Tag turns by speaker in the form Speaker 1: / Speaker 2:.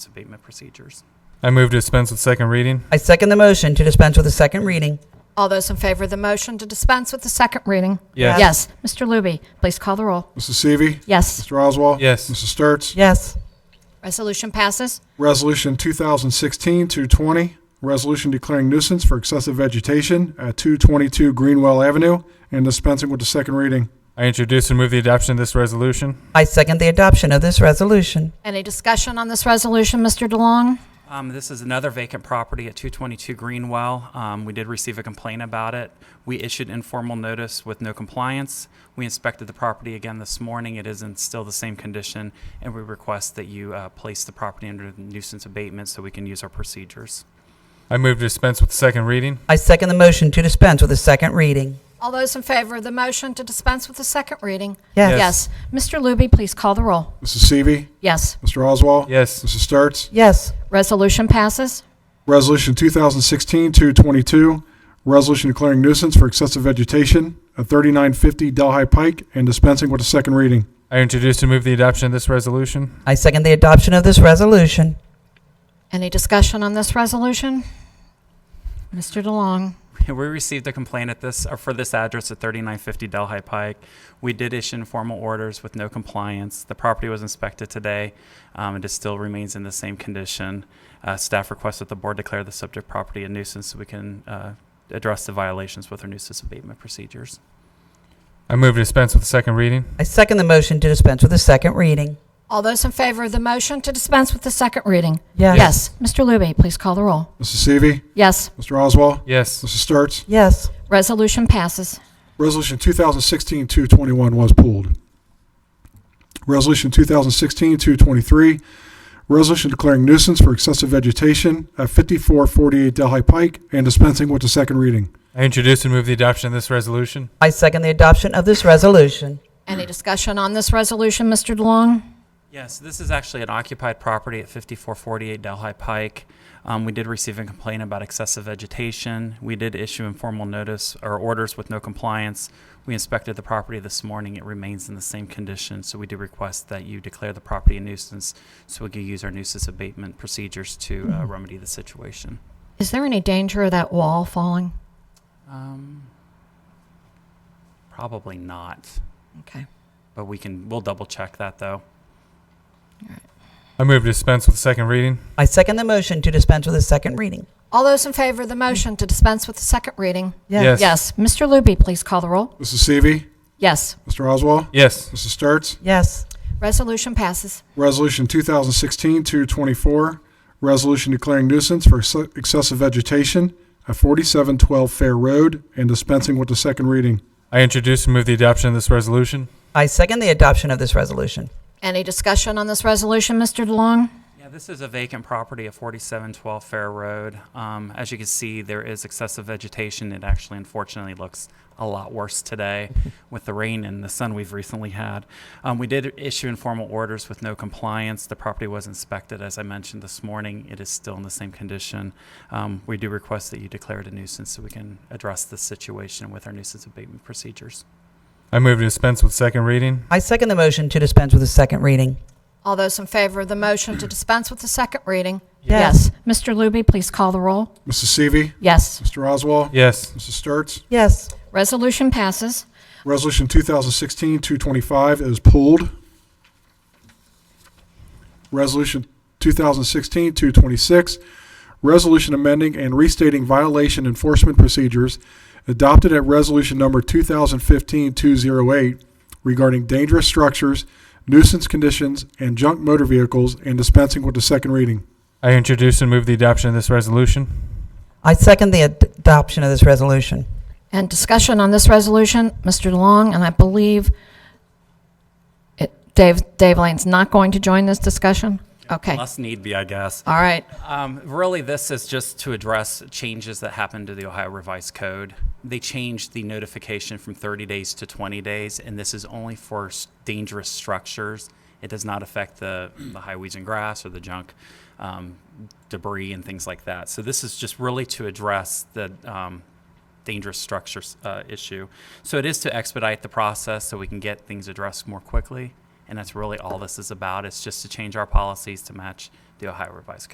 Speaker 1: its abatement procedures.
Speaker 2: I move to dispense with second reading.
Speaker 3: I second the motion to dispense with the second reading.
Speaker 4: All those in favor of the motion to dispense with the second reading?
Speaker 2: Yes.
Speaker 4: Yes. Mr. Looby, please call the roll.
Speaker 5: Mrs. Seavey.
Speaker 4: Yes.
Speaker 5: Mr. Oswald.
Speaker 2: Yes.
Speaker 5: Mrs. Sturts.
Speaker 3: Yes.
Speaker 4: Resolution passes.
Speaker 5: Resolution 2016-220, resolution declaring nuisance for excessive vegetation at 222 Greenwell Avenue and dispensing with the second reading.
Speaker 2: I introduce and move the adoption of this resolution.
Speaker 3: I second the adoption of this resolution.
Speaker 4: Any discussion on this resolution, Mr. DeLong?
Speaker 1: Um, This is another vacant property at 222 Greenwell. Um, We did receive a complaint about it. We issued informal notice with no compliance. We inspected the property again this morning. It is in still the same condition, and we request that you uh, place the property under nuisance abatement so we can use our procedures.
Speaker 2: I move to dispense with second reading.
Speaker 3: I second the motion to dispense with the second reading.
Speaker 4: All those in favor of the motion to dispense with the second reading?
Speaker 3: Yes.
Speaker 2: Yes.
Speaker 4: Mr. Looby, please call the roll.
Speaker 5: Mrs. Seavey.
Speaker 4: Yes.
Speaker 5: Mr. Oswald.
Speaker 2: Yes.
Speaker 5: Mrs. Sturts.
Speaker 3: Yes.
Speaker 4: Resolution passes.
Speaker 5: Resolution 2016-222, resolution declaring nuisance for excessive vegetation at 3950 Delhi Pike and dispensing with the second reading.
Speaker 2: I introduce and move the adoption of this resolution.
Speaker 3: I second the adoption of this resolution.
Speaker 4: Any discussion on this resolution? Mr. DeLong?
Speaker 1: We received a complaint at this, or for this address at 3950 Delhi Pike. We did issue informal orders with no compliance. The property was inspected today, um, and it still remains in the same condition. Uh, Staff requests that the board declare the subject property a nuisance so we can uh, address the violations with our nuisance abatement procedures.
Speaker 2: I move to dispense with second reading.
Speaker 3: I second the motion to dispense with the second reading.
Speaker 4: All those in favor of the motion to dispense with the second reading?
Speaker 3: Yes.
Speaker 4: Yes. Mr. Looby, please call the roll.
Speaker 5: Mrs. Seavey.
Speaker 4: Yes.
Speaker 5: Mr. Oswald.
Speaker 2: Yes.
Speaker 5: Mrs. Sturts.
Speaker 3: Yes.
Speaker 4: Resolution passes.
Speaker 5: Resolution 2016-221 was pulled. Resolution 2016-223, resolution declaring nuisance for excessive vegetation at 5448 Delhi Pike and dispensing with the second reading.
Speaker 2: I introduce and move the adoption of this resolution.
Speaker 3: I second the adoption of this resolution.
Speaker 4: Any discussion on this resolution, Mr. DeLong?
Speaker 1: Yes, this is actually an occupied property at 5448 Delhi Pike. Um, we did receive a complaint about excessive vegetation. We did issue informal notice or orders with no compliance. We inspected the property this morning. It remains in the same condition, so we do request that you declare the property a nuisance so we can use our nuisance abatement procedures to uh, remedy the situation.
Speaker 4: Is there any danger of that wall falling?
Speaker 1: Um, probably not,
Speaker 4: Okay.
Speaker 1: but we can, we'll double check that though.
Speaker 2: I move to dispense with second reading.
Speaker 3: I second the motion to dispense with the second reading.
Speaker 4: All those in favor of the motion to dispense with the second reading?
Speaker 2: Yes.
Speaker 4: Yes. Mr. Looby, please call the roll.
Speaker 5: Mrs. Seavey.
Speaker 4: Yes.
Speaker 5: Mr. Oswald.
Speaker 2: Yes.
Speaker 5: Mrs. Sturts.
Speaker 3: Yes.
Speaker 4: Resolution passes.
Speaker 5: Resolution 2016-224, resolution declaring nuisance for ex- excessive vegetation at 4712 Fair Road and dispensing with the second reading.
Speaker 2: I introduce and move the adoption of this resolution.
Speaker 3: I second the adoption of this resolution.
Speaker 4: Any discussion on this resolution, Mr. DeLong?
Speaker 1: Yeah, this is a vacant property at 4712 Fair Road. Um, As you can see, there is excessive vegetation. It actually unfortunately looks a lot worse today with the rain and the sun we've recently had. Um, We did issue informal orders with no compliance. The property was inspected, as I mentioned this morning. It is still in the same condition. Um, We do request that you declare it a nuisance so we can address this situation with our nuisance abatement procedures.
Speaker 2: I move to dispense with second reading.
Speaker 3: I second the motion to dispense with the second reading.
Speaker 4: All those in favor of the motion to dispense with the second reading?
Speaker 3: Yes.
Speaker 4: Mr. Looby, please call the roll.
Speaker 5: Mrs. Seavey.
Speaker 4: Yes.
Speaker 5: Mr. Oswald.
Speaker 2: Yes.
Speaker 5: Mrs. Sturts.
Speaker 3: Yes.
Speaker 4: Resolution passes.
Speaker 5: Resolution 2016-225 is pulled. Resolution 2016-226, resolution amending and restating violation enforcement procedures adopted at resolution number 2015-208 regarding dangerous structures, nuisance conditions, and junk motor vehicles, and dispensing with the second reading.
Speaker 2: I introduce and move the adoption of this resolution.
Speaker 3: I second the ad- adoption of this resolution.
Speaker 4: And discussion on this resolution, Mr. DeLong, and I believe it- Dave Dave Lane's not going to join this discussion? Okay.
Speaker 1: Unless need be, I guess.
Speaker 4: All right.
Speaker 1: Um, really, this is just to address changes that happened to the Ohio Revised Code. They changed the notification from 30 days to 20 days, and this is only for s- dangerous structures. It does not affect the, the highways and grass or the junk um, debris and things like that. So this is just really to address the um, dangerous structures uh, issue. So it is to expedite the process so we can get things addressed more quickly. And that's really all this is about. It's just to change our policies to match the Ohio Revised Code.